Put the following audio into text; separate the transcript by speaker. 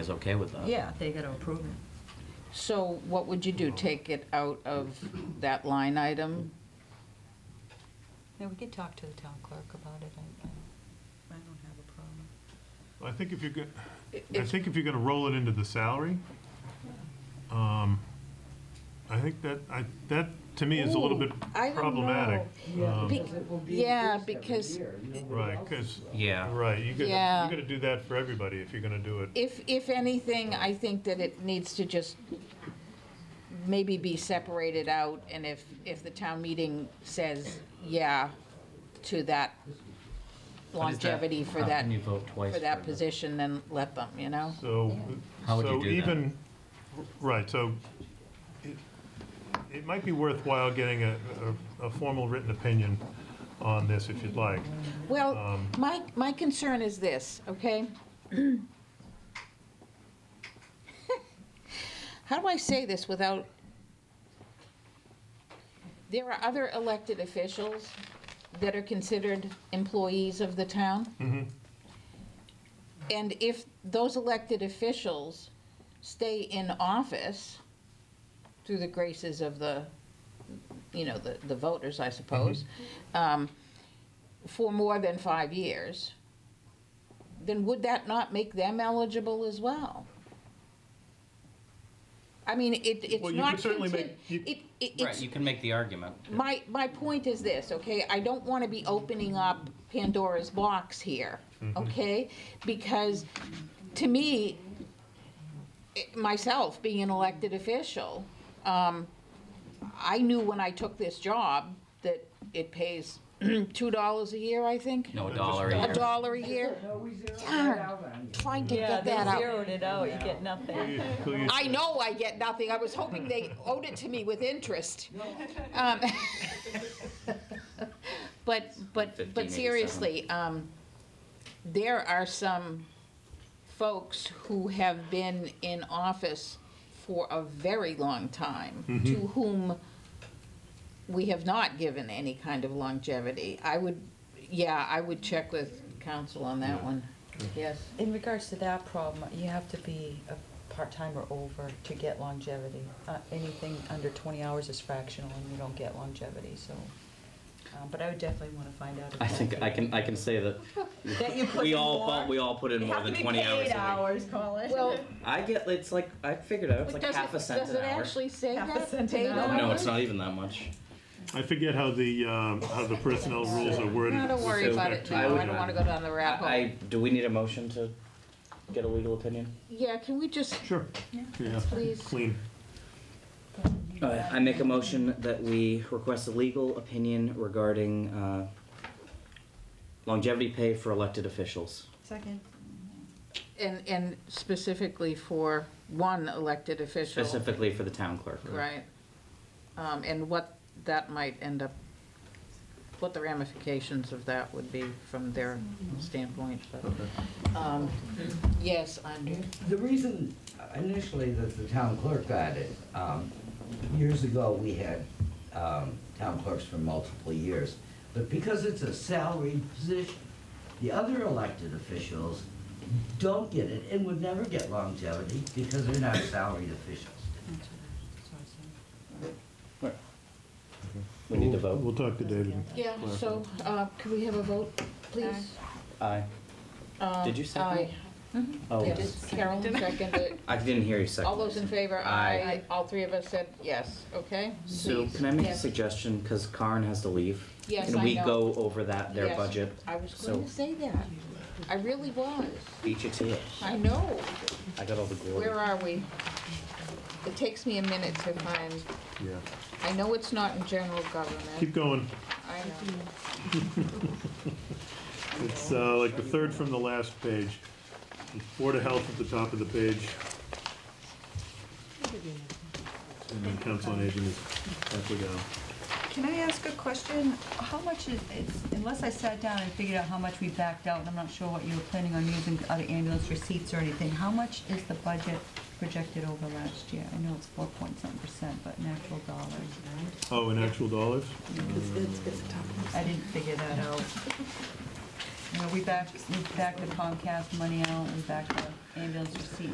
Speaker 1: was okay with that.
Speaker 2: Yeah,
Speaker 3: They gotta approve it.
Speaker 2: so what would you do? Take it out of that line item?
Speaker 3: Yeah, we could talk to the town clerk about it, I, I don't have a problem.
Speaker 4: I think if you're going, I
Speaker 2: If-
Speaker 4: think if you're gonna roll it into the salary, um, I think that, I, that to me is a little bit
Speaker 2: Ooh, I don't know.
Speaker 4: problematic.
Speaker 5: Yeah,
Speaker 4: Um,
Speaker 5: because it will be
Speaker 2: yeah,
Speaker 5: increased every
Speaker 2: because-
Speaker 5: year, you know,
Speaker 4: Right,
Speaker 5: without-
Speaker 4: 'cause-
Speaker 1: Yeah.
Speaker 4: Right, you could, you
Speaker 2: Yeah.
Speaker 4: gotta do that for everybody if you're gonna do it.
Speaker 2: If, if anything, I think that it needs to just maybe be separated out, and if, if the town meeting says, yeah, to that
Speaker 1: What is that?
Speaker 2: longevity for
Speaker 1: How
Speaker 2: that,
Speaker 1: can you vote twice
Speaker 2: for that
Speaker 1: the-
Speaker 2: position, then let them, you know?
Speaker 4: So,
Speaker 1: How would you
Speaker 4: so
Speaker 1: do that?
Speaker 4: even, right, so it, it might be worthwhile getting a, a, a formal written opinion on this if you'd like. Uh, Um,
Speaker 2: Well, my, my concern is this, okay? How do I say this without, there are other elected officials that are considered employees of the town.
Speaker 4: Mm-hmm.
Speaker 2: And if those elected officials stay in office through the graces of the, you know, the, the voters, I suppose,
Speaker 4: Mm-hmm.
Speaker 2: um, for more than five years, then would that not make them eligible as well? I mean, it, it's
Speaker 4: Well, you
Speaker 2: not.
Speaker 4: could certainly
Speaker 2: contin-
Speaker 4: make- you-
Speaker 2: It, it,
Speaker 1: Right,
Speaker 2: it's,
Speaker 1: you can make the argument.
Speaker 2: my, my point is this, okay, I don't wanna be opening up Pandora's box here, okay? Because to me, it- myself, being an elected official, um, I knew when I took this job that it pays two dollars a year, I think?
Speaker 1: No, a
Speaker 4: Just-
Speaker 1: dollar a
Speaker 4: A
Speaker 1: year.
Speaker 2: A dollar a year?
Speaker 5: No, we zeroed it
Speaker 2: Darn.
Speaker 5: out on you.
Speaker 2: Trying to get that out.
Speaker 3: it out, you get nothing.
Speaker 4: Till you-
Speaker 2: I know I get nothing. I was hoping they owed it to me with interest. Um, But, but, but
Speaker 1: 1587.
Speaker 2: seriously, um, there are some folks who have been in office for a very long time, to whom we have not given any kind of longevity. I would, yeah, I would check with council on that one. Yes.
Speaker 3: In regards to that problem, you have to be a part-time or over to get longevity. Uh, anything under twenty hours is fractional and you don't get longevity, so, um, but I would definitely wanna find out. if
Speaker 6: I think
Speaker 3: that-
Speaker 6: I can I can say that
Speaker 3: That you put
Speaker 6: we
Speaker 3: in
Speaker 6: all
Speaker 3: more.
Speaker 6: bu- we all put in more than twenty hours. a week.
Speaker 3: Colin.
Speaker 2: Well,
Speaker 6: I get it's like I figured out it's like
Speaker 2: Does
Speaker 6: half
Speaker 2: it-
Speaker 6: a cent
Speaker 2: does
Speaker 6: an
Speaker 2: it
Speaker 6: hour.
Speaker 2: actually say
Speaker 3: Half a
Speaker 2: that?
Speaker 3: cent an
Speaker 2: Paid
Speaker 3: hour.
Speaker 6: no,
Speaker 2: hour?
Speaker 6: it's not even that much.
Speaker 4: I forget how the, um, how the personnel rules are worded.
Speaker 2: No, don't worry
Speaker 6: So
Speaker 2: about
Speaker 4: back
Speaker 2: it
Speaker 4: to
Speaker 2: now, I
Speaker 4: you.
Speaker 2: don't wanna go down the
Speaker 6: I,
Speaker 2: rabbit
Speaker 6: I
Speaker 2: hole.
Speaker 6: do we need a motion to get a legal opinion?
Speaker 2: Yeah, can we just,
Speaker 4: Sure, yeah,
Speaker 2: please?
Speaker 4: clean.
Speaker 6: Uh, I make a motion that we request a legal opinion regarding uh, longevity pay for elected officials.
Speaker 3: Second.
Speaker 2: And, and specifically for one elected official,
Speaker 6: Specifically for the town clerk.
Speaker 2: right? Um, and what that might end up, what the ramifications of that would be from their standpoint, but, um, yes, Andrew?
Speaker 5: The reason uh, initially that the town clerk got it, um, years ago, we had, um, town clerks for multiple years. But because it's a salaried position, the other elected officials don't get it and would never get longevity because they're not salaried officials.
Speaker 6: We need to vote.
Speaker 4: We'll talk to David.
Speaker 2: Yeah, so, uh, could we have a vote, please?
Speaker 6: Aye.
Speaker 2: Uh,
Speaker 6: Did you second?
Speaker 2: aye.
Speaker 6: Oh,
Speaker 2: Yeah, Carolyn seconded it.
Speaker 6: I didn't hear you second.
Speaker 2: All those in favor,
Speaker 6: Aye.
Speaker 2: aye. All three of us said yes, okay?
Speaker 6: So
Speaker 2: Please.
Speaker 6: can I make a
Speaker 2: Yes.
Speaker 6: suggestion, because Karen has to leave?
Speaker 2: Yes, I
Speaker 6: Can we
Speaker 2: know.
Speaker 6: go over that, their
Speaker 2: Yes.
Speaker 6: budget?
Speaker 2: I was
Speaker 6: So-
Speaker 2: going to say that. I really was.
Speaker 6: Beat you to it.
Speaker 2: I know.
Speaker 6: I got all the glory.
Speaker 2: Where are we? It takes me a minute to find,
Speaker 4: Yeah,
Speaker 2: I know it's not in general government.
Speaker 4: keep going.
Speaker 2: I know.
Speaker 4: It's uh, like the third from the last page. Board of Health at the top of the page. And then Council on Aging is halfway down.
Speaker 7: Can I ask a question? How much is, it's- unless I sat down and figured out how much we backed out, and I'm not sure what you were planning on using out of ambulance receipts or anything, how much is the budget projected over last year? I know it's four point something percent, but in actual dollars.
Speaker 4: Oh, in actual dollars?
Speaker 7: I didn't figure that out. You know, we backed, we backed the Comcast money out, we backed the ambulance receipts